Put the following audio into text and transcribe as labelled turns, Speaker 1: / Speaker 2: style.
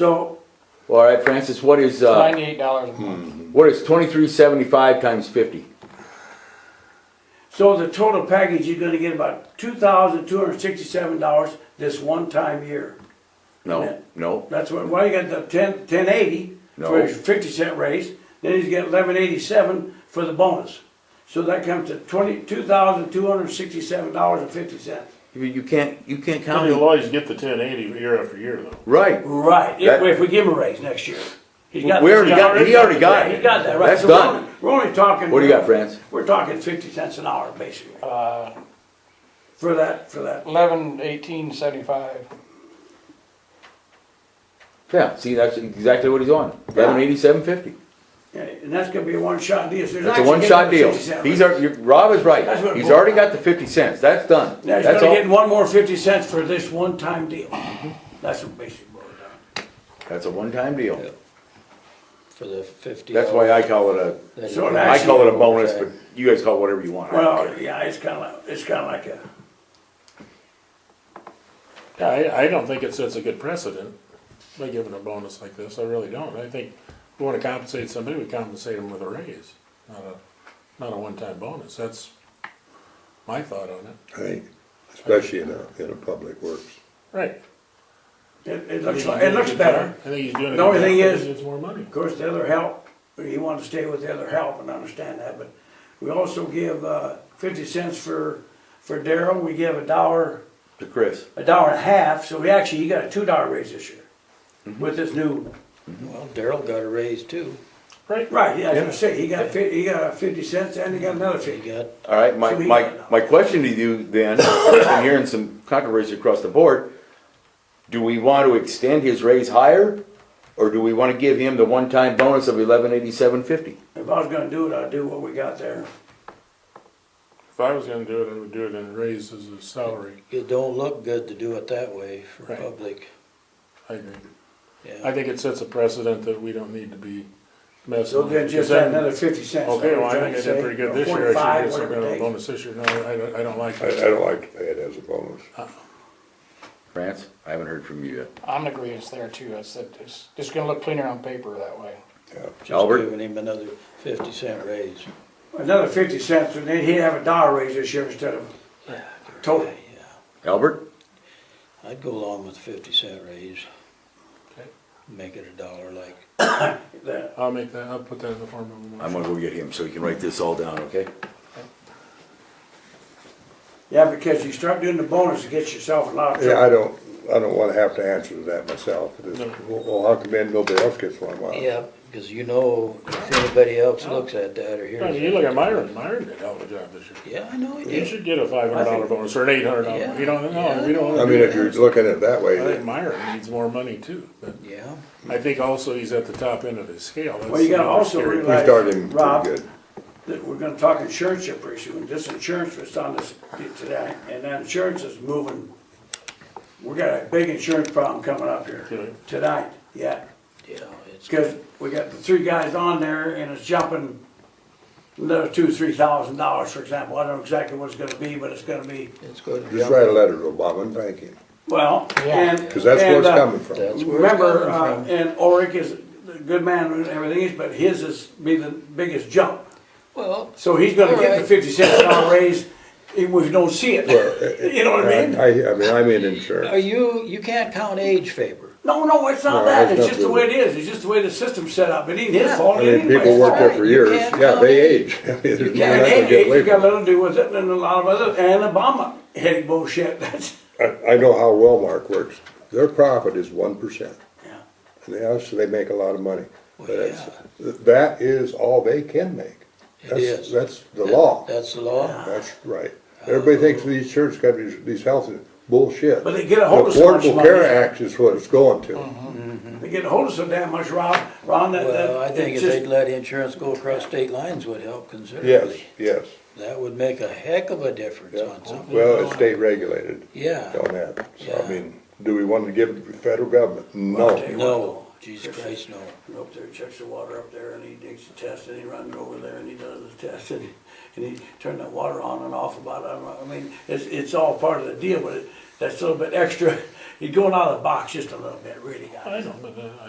Speaker 1: So,
Speaker 2: All right, Francis, what is, uh,
Speaker 3: Ninety-eight dollars a month.
Speaker 2: what is twenty-three seventy-five times fifty?
Speaker 1: so the total package, you're gonna get about two thousand two hundred sixty-seven dollars this one time year.
Speaker 2: No, no,
Speaker 1: That's what, well, you got the ten, ten eighty for
Speaker 2: No.
Speaker 1: his fifty cent raise, then he's got eleven eighty-seven for the bonus. So that comes to twenty, two thousand two hundred sixty-seven dollars and fifty cents.
Speaker 2: you you can't, you can't
Speaker 4: How
Speaker 2: count
Speaker 4: many
Speaker 2: it.
Speaker 4: lawyers get the ten eighty year after year though?
Speaker 2: Right,
Speaker 1: Right, if,
Speaker 2: That-
Speaker 1: if we give him a raise next year. He's got-
Speaker 2: We already got- he already got it.
Speaker 1: Yeah, He got that, right.
Speaker 2: That's
Speaker 1: So we're
Speaker 2: done.
Speaker 1: only- We're only talking.
Speaker 2: what do you got, Francis?
Speaker 1: We're talking fifty cents an hour, basically,
Speaker 3: Uh,
Speaker 1: for that, for that.
Speaker 3: eleven, eighteen, seventy-five.
Speaker 2: Yeah, see, that's exactly what he's on, eleven eighty-seven fifty.
Speaker 1: Yeah, And that's gonna be a one-shot deal. So
Speaker 2: That's a one-shot deal. He's, al- you- Rob is
Speaker 1: That's
Speaker 2: right,
Speaker 1: what it
Speaker 2: he's
Speaker 1: boils
Speaker 2: already got the fifty cents, that's done.
Speaker 1: Now, he's
Speaker 2: That's
Speaker 1: gonna get
Speaker 2: all, Mm-hmm.
Speaker 1: one more fifty cents for this one-time deal. That's what basically boils down to.
Speaker 2: that's a one-time deal.
Speaker 5: for the fifty.
Speaker 2: That's why I call it
Speaker 5: That's
Speaker 1: So
Speaker 2: a, I call it a bonus, but you guys call it whatever you want. I don't
Speaker 1: Well, yeah, it's kinda like, it's kinda like a,
Speaker 4: I, I don't think it sets a good precedent by giving a bonus like this, I really don't. I think if we wanna compensate somebody, we compensate them with a raise, not a, not a one-time bonus, that's my thought on it.
Speaker 6: Right, especially in a, in a public works.
Speaker 4: Right.
Speaker 1: it, it looks like, it looks better.
Speaker 4: I think he's doing it.
Speaker 1: The only thing
Speaker 4: better
Speaker 1: is-
Speaker 4: because It's more money.
Speaker 1: Of course, the other help, you want to stay with the other help and understand that, but we also give uh, fifty cents for, for Daryl, we give a dollar,
Speaker 2: care. To Chris,
Speaker 1: a dollar and a half, so we actually, he got a two dollar raise this year
Speaker 2: Mm-hmm.
Speaker 1: with this new,
Speaker 5: Well, Daryl got a raise too.
Speaker 4: Right.
Speaker 1: right, yeah, I was gonna say, he got fifty, he got a fifty cents and he got another
Speaker 5: He
Speaker 1: fifty.
Speaker 5: got,
Speaker 2: all right, my,
Speaker 1: So he-
Speaker 2: my, my question to you then, I've been hearing some controversy across the board. Do we want to extend his raise higher, or do we want to give him the one-time bonus of eleven eighty-seven fifty?
Speaker 1: If I was gonna do it, I'd do what we got there.
Speaker 4: If I was gonna do it, I would do it in raises as a salary,
Speaker 5: it don't look good to do it that way for
Speaker 4: Right.
Speaker 5: public,
Speaker 4: I agree. I
Speaker 5: yeah.
Speaker 4: think it sets a precedent that we don't need to be messing.
Speaker 1: So
Speaker 4: with
Speaker 1: then
Speaker 4: it,
Speaker 1: just
Speaker 4: 'cause
Speaker 1: add
Speaker 4: then-
Speaker 1: another fifty cents.
Speaker 4: Mm-hmm. Okay, well, I
Speaker 1: like
Speaker 4: think I
Speaker 1: was
Speaker 4: did
Speaker 1: trying to say,
Speaker 4: pretty good
Speaker 1: or
Speaker 4: this year, I
Speaker 1: 45,
Speaker 4: should get some
Speaker 1: whatever
Speaker 4: kind of
Speaker 1: it
Speaker 4: a
Speaker 1: takes.
Speaker 4: bonus this year, no, I don't, I don't like
Speaker 6: I, I
Speaker 4: that.
Speaker 6: don't like to pay it as a bonus.
Speaker 5: Uh-huh.
Speaker 2: France, I haven't heard from you yet.
Speaker 3: I'm in agreeance there too. I said, it's just gonna look cleaner on paper that way.
Speaker 6: Yeah.
Speaker 5: Just
Speaker 2: Albert?
Speaker 5: giving him another fifty cent raise.
Speaker 1: Another fifty cents, and then he'd have a dollar raise this year instead of total.
Speaker 2: Albert?
Speaker 5: I'd go along with fifty cent raise.
Speaker 4: Okay.
Speaker 5: Make it a dollar like,
Speaker 1: That-
Speaker 4: I'll make that, I'll put that in the form of a motion.
Speaker 2: I'm gonna go get him so he can write this all down, okay?
Speaker 1: Yeah, because you start doing the bonus, it gets yourself in a lot of
Speaker 6: Yeah, I
Speaker 1: trouble.
Speaker 6: don't, I don't wanna have to answer to that myself. It is, well, well, how come then nobody else gets one? Well,
Speaker 5: yeah, cause you know, if anybody else looks at that or hears
Speaker 4: I mean, you
Speaker 5: that-
Speaker 4: look at Myron, Myron did a hell of a job this year.
Speaker 5: Yeah, I know he
Speaker 4: He
Speaker 5: did.
Speaker 4: should get a five hundred dollar bonus or an eight hundred dollar,
Speaker 5: Yeah.
Speaker 4: you don't know, we don't.
Speaker 6: I
Speaker 4: wanna
Speaker 6: mean,
Speaker 4: do
Speaker 6: if you're
Speaker 4: that.
Speaker 6: looking at it that way,
Speaker 4: I think
Speaker 6: then
Speaker 4: Myron needs more money too, but
Speaker 5: Yeah,
Speaker 4: I think also he's at the top end of his scale. That's
Speaker 1: Well, you gotta
Speaker 4: another
Speaker 1: also
Speaker 4: scary
Speaker 6: we
Speaker 1: realize-
Speaker 6: started him
Speaker 1: Rob.
Speaker 6: pretty good.
Speaker 1: That We're gonna talk insurance here pretty soon, this insurance was on this today, and that insurance is moving. We got a big insurance problem coming up here
Speaker 4: Really?
Speaker 1: tonight, yeah,
Speaker 5: yeah, it's,
Speaker 1: because we got the three guys on there and it's jumping another two, three thousand dollars, for example, I don't know exactly what it's gonna be, but it's gonna be,
Speaker 5: it's gonna
Speaker 6: Just
Speaker 5: jump.
Speaker 6: write a letter to Obama and thank him,
Speaker 1: well, and.
Speaker 6: cause that's where
Speaker 1: and,
Speaker 6: it's
Speaker 1: uh,
Speaker 6: coming from.
Speaker 5: That's where it's
Speaker 1: Remember, uh,
Speaker 5: coming from.
Speaker 1: and Oric is a good man and everything, is, but his is be the biggest jump.
Speaker 5: Well,
Speaker 1: So he's gonna get the
Speaker 5: Alright.
Speaker 1: fifty cents an hour raise, even if we don't see it, you know what I mean?
Speaker 6: I, I mean, I'm in
Speaker 5: are
Speaker 6: insurance.
Speaker 5: you, you can't count age favor.
Speaker 1: No, no, it's not
Speaker 6: No,
Speaker 1: that,
Speaker 6: it's
Speaker 1: it's
Speaker 6: not
Speaker 1: just the
Speaker 6: good.
Speaker 1: way it is, it's just the way the system's set up, it ain't his
Speaker 5: Yeah.
Speaker 1: fault
Speaker 6: I mean,
Speaker 1: anybody's
Speaker 6: people
Speaker 1: fault.
Speaker 6: work there for
Speaker 5: You
Speaker 6: years,
Speaker 5: can't
Speaker 6: yeah,
Speaker 5: tell
Speaker 6: they
Speaker 5: me.
Speaker 6: age. I mean, there's nothing
Speaker 1: Yeah, and
Speaker 6: I can
Speaker 1: hey,
Speaker 6: get
Speaker 1: hey,
Speaker 6: away
Speaker 1: you got
Speaker 6: from.
Speaker 1: little to do with it and a lot of other, and Obama heading bullshit, that's,
Speaker 6: I, I know how Wellmark works, their profit is one percent.
Speaker 1: yeah.
Speaker 6: And they obviously, they make a lot of money.
Speaker 5: Well,
Speaker 6: But it's- That is all they can make.
Speaker 5: It
Speaker 6: That's-
Speaker 5: is.
Speaker 6: That's the law.
Speaker 5: That's the law.
Speaker 6: That's right. Everybody thinks these insurance companies, these health is bullshit.
Speaker 1: But they get a hold of
Speaker 6: The
Speaker 1: so much
Speaker 6: Affordable
Speaker 1: money.
Speaker 6: Care Act is what it's going to.
Speaker 5: Mm-hmm.
Speaker 1: They get hold of so damn much, Rob, Ron, that, that.
Speaker 5: Well, I think
Speaker 1: it's
Speaker 5: if they'd
Speaker 1: just-
Speaker 5: let insurance go across state lines would help
Speaker 6: Yes,
Speaker 5: considerably.
Speaker 6: yes.
Speaker 5: That would make a heck of a difference on something.
Speaker 6: Well, it's state regulated
Speaker 5: Yeah,
Speaker 6: on that. So
Speaker 5: Yeah.
Speaker 6: I mean, do we want to give it to the federal government? No.
Speaker 5: no, Jesus Christ, no.
Speaker 1: Go up there, checks the water up there, and he digs the test, and he runs over there, and he does the test, and, and he turned that water on and off about, I mean, it's, it's all part of the deal, but it- that's a little bit extra, you're going out of the box just a little bit, really, guys.
Speaker 4: I know, but uh,